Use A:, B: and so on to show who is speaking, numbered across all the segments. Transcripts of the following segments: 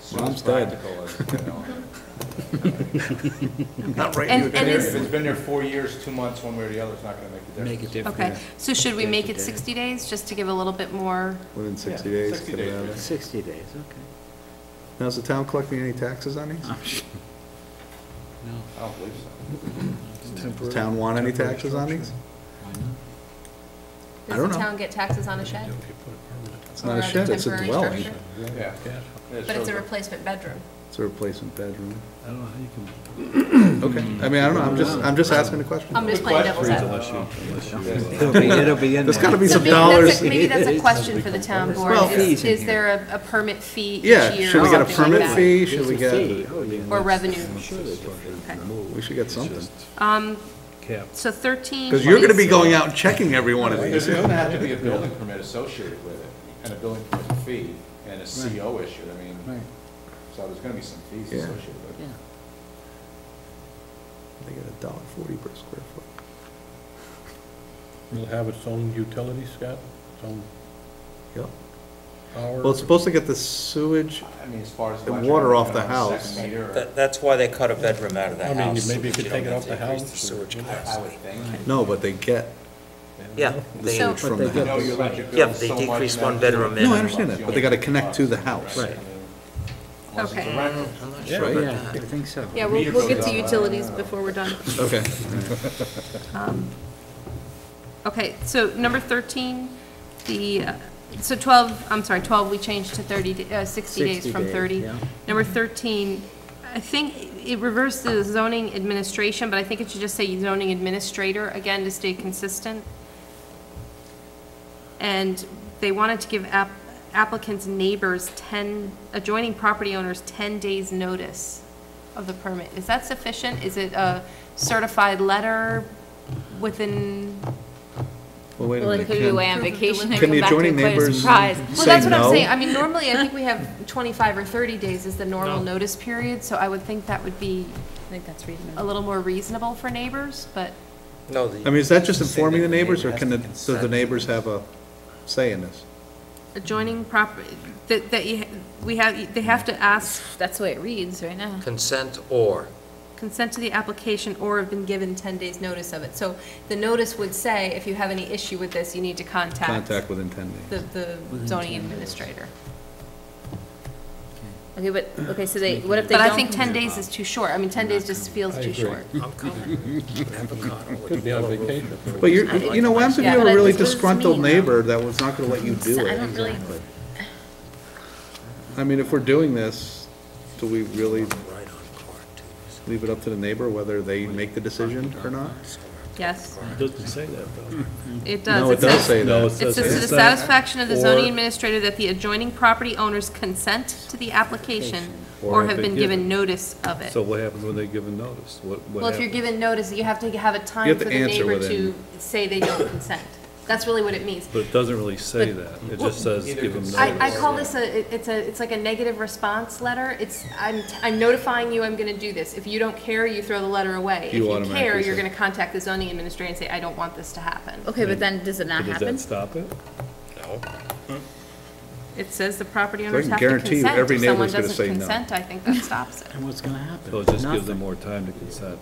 A: soon as
B: Mom's dead.
A: practical as, you know.
C: Not right.
D: And, and
A: If
D: is,
A: it's been there four years, two months, one way or the other, it's not gonna make a
B: Make
A: difference.
B: it different.
D: okay, so should we make it
E: Days to day.
D: 60 days, just to give a little bit more?
B: Within 60
A: Yeah,
B: days.
A: 60
B: get it
A: days,
B: out of
A: yeah.
B: there.
E: 60 days, okay.
B: Now, is the town collecting any taxes on these?
E: I'm sure- No.
A: I don't believe so.
B: Does town want any taxes on these?
E: Why not?
B: I don't
D: Does the
B: know.
D: town get taxes on a shed?
B: It's not
D: Or
B: a shed, it's a
D: temporary
B: dwelling.
D: structure?
A: Yeah. It
D: But it's
A: shows
D: a
A: up.
D: replacement bedroom.
B: It's a replacement bedroom.
C: I don't know how you can,
B: Okay, I mean, I don't know, I'm just, I'm just asking the question.
D: I'm just playing devil's advocate.
C: unless you, unless you.
E: It'll be, it'll be in there.
B: There's gotta be
D: So
B: some
D: maybe that's
B: dollars.
D: a- Maybe that's a
E: It's-
D: question for the town board.
B: Well-
D: Is is there a- a permit fee each year
B: Yeah,
D: or
B: should we get a
D: something like
B: permit
D: that?
B: fee? Should we
E: There's a
B: get,
E: fee. Oh, yeah.
D: Or revenue? Okay.
B: we should get something.
D: Um,
C: Cap.
D: so 13.
B: Because you're gonna be
D: is-
B: going out and checking every one of
A: There's
B: these.
A: gonna have to be a building permit associated with it, and a building permit fee, and a CO issue, I mean,
E: Right,
A: so there's gonna be some fees
B: Yeah.
A: associated with
E: yeah.
A: it.
B: They get a dollar forty per square foot.
F: It'll have its own utilities, Scott, its own
B: Yep.
F: power.
B: Well, it's supposed to get the sewage,
A: I mean, as far as.
B: The
A: electric,
B: water off
A: depending
B: the
A: on second
B: house.
A: meter or-
G: That, that's why they cut a bedroom out of the
F: I
G: house.
F: mean, maybe you
G: so
F: could
G: that
F: take it
G: don't
F: off the
G: have to
F: house.
G: increase the sewage
A: I I would
G: capacity.
A: think.
B: no, but they get
G: Yeah, they,
D: So-
B: sewage from the
E: But they
A: You
E: get
A: know,
B: house.
A: your electric
G: Yeah,
A: bill is
G: they
A: so much
G: decrease
A: and
G: one
A: that's-
G: bedroom in.
B: No, I understand that, but they gotta
A: uh,
B: connect to the house.
E: Right.
A: Unless it's a
D: Okay.
A: rental.
G: I'm not
B: Yeah.
G: sure about
E: Yeah, I
G: that.
E: think so.
D: Yeah, we'll,
A: Meter
D: we'll get
A: goes
D: to
A: up.
D: utilities before we're done.
B: Okay.
D: Um, Okay, so number 13, the, uh, so 12, I'm sorry, 12, we changed to 30, d- uh, 60 days
E: 60
D: from
E: days,
D: 30.
E: yeah.
D: Number 13, I think it reversed the zoning administration, but I think it should just say zoning administrator, again, to stay consistent. And they wanted to give app- applicants' neighbors 10, adjoining property owners 10 days' notice of the permit. Is that sufficient? Is it a certified letter within?
B: Well, wait a
H: Well, it
B: minute.
H: could be away
B: Can
H: on vacation, they
B: can
H: come
B: the
H: back to
B: adjoining
H: declare a
B: neighbors
H: surprise.
D: Well,
B: say
D: that's what I'm saying.
B: no?
D: I mean, normally, I think we have 25 or 30 days is the normal notice period, so I would think that would be
H: I think that's
D: a
H: reasonable.
D: little more reasonable for neighbors, but
G: No, the.
B: I mean, is that just
G: say
B: informing the neighbors, or
G: neighbor
B: can,
G: has
B: the-
G: to
B: does the
G: consent.
B: neighbors have a say in this?
D: adjoining property, that, that you, we have, they have to ask
H: That's the way it reads right now.
G: Consent or,
D: consent to the application or have been given 10 days' notice of it. So the notice would say, if you have any issue with this, you need to contact
B: Contact within ten days.
D: the, the zoning administrator.
H: Okay, but, okay, so they, what if they
D: But
H: don't?
D: I think 10 days is too short. I mean, 10 days just feels
F: I
D: too
F: agree.
D: short.
G: I'm coming. Avocado with
F: Could be on vacation.
B: But you're, you know, what happens if you
H: Yeah,
B: have
H: but
B: a
H: I-
B: really
H: what does this
B: disgruntled
H: mean, though?
B: neighbor
D: um,
B: that was not gonna let you do
H: I
B: it?
H: don't really,
B: I mean, if we're doing this, do we really
G: Right on Clark, too.
B: leave it up to the neighbor whether they make the decision or not?
D: Yes,
C: Doesn't say that, though.
D: it does.
B: No, it
D: says-
B: does say
C: No,
B: that.
D: It says to the satisfaction of the zoning administrator that the adjoining property owners consent to the application
C: Or
D: or
C: have
D: have been
C: been given.
D: given notice of it.
C: So what happens when they give a notice? What, what
D: Well, if you're
C: happens?
D: given notice, you have to have a
B: You
D: time
B: have
D: for
B: to
D: the
B: answer
D: neighbor to
B: within-
D: say they don't consent. That's really what it means.
C: But it doesn't really say
D: But-
C: that. It just says
A: Either
C: give them notice.
A: consent
D: I, I call this a, it- it's a, it's like a negative response letter. It's, I'm, I'm notifying you I'm gonna do this. If you don't care, you throw the letter away. If
B: You
D: you
B: automatically
D: care, you're
B: say-
D: gonna contact the zoning administrator and say, I don't want this to happen.
H: okay, but then does it not
C: Does
H: happen?
C: that stop it?
G: No.
D: It says the property
B: I
D: owners
B: can
D: have to
B: guarantee you
D: consent.
B: every
D: If someone
B: neighbor's gonna
D: doesn't
B: say no.
D: consent, I think that stops it.
E: And what's gonna happen?
C: So it just gives them
E: Nothing.
C: more time to consent.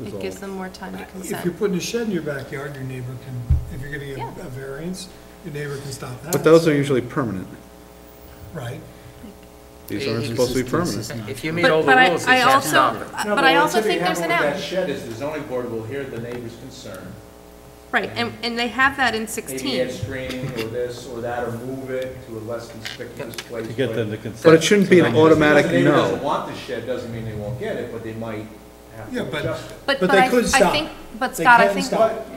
C: is
D: It
C: all.
D: gives them more time to
I: If you're
D: consent.
I: putting a shed in your backyard, your neighbor can, if you're gonna
D: Yeah.
I: get a variance, your neighbor can stop that.
B: But those are usually permanent.
I: Right.
B: These aren't
G: This
B: supposed to be
E: is- this is
B: permanent.
E: not-
G: If you meet all
D: But,
G: the
D: but I,
G: rules, you
D: I
G: can't
D: also,
G: stop it.
A: No,
D: but I
A: what
D: also
A: typically
D: think there's an
A: happens with
D: out.
A: That shed is the zoning board will hear the neighbor's concern,
D: Right, and, and they have that in
A: maybe
D: sixteen.
A: add screening or this or that, or move it to a less conspicuous place.
C: To get them to
A: but-
C: consent.
B: But it shouldn't be an
C: So-
B: automatic
A: Because the neighbor doesn't
B: no.
A: want the shed, doesn't mean they won't get it, but they might have
I: Yeah,
A: to
I: but-
A: adjust it.
D: But,
I: But
D: but
I: they
D: I,
I: could
D: I
I: stop.
D: think, but
I: They
D: Scott, I
I: can
D: think,
I: stop.
A: But,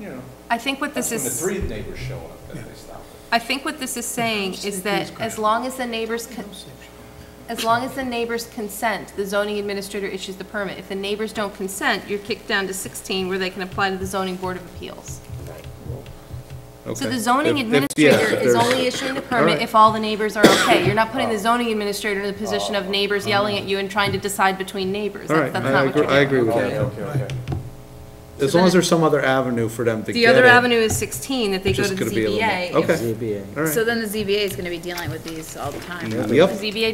A: you know,
D: I think what this
A: when the
D: is,
A: three neighbors show up, then they stop it.
D: I think what this is saying is that as long as the neighbors, con- as long as the neighbors consent, the zoning administrator issues the permit. If the neighbors don't consent, you're kicked down to sixteen where they can apply to the zoning board of appeals. So
B: Okay.
D: the zoning
B: If- if- yeah,
D: administrator
B: if
D: is
B: there's-
D: only issuing the permit
B: right.
D: if all the neighbors are okay. You're not putting the zoning administrator in the position of neighbors yelling at you and trying to decide between neighbors.
B: All right,
D: That's that's
B: I
D: not what you're
B: agree, I
D: doing.
B: agree with
A: Okay,
B: that.
A: okay, okay.
B: As
D: So
B: long as
D: then-
B: there's some other avenue for them to
D: The
B: get
D: other
B: it,
D: avenue is 16, that they
B: which
D: go
B: is
D: to the
B: gonna be a little-
D: ZBA.
B: Okay,
E: ZBA.
B: all right.
H: So then the ZBA is gonna be dealing with these all the time.
B: Yep.
D: ZBA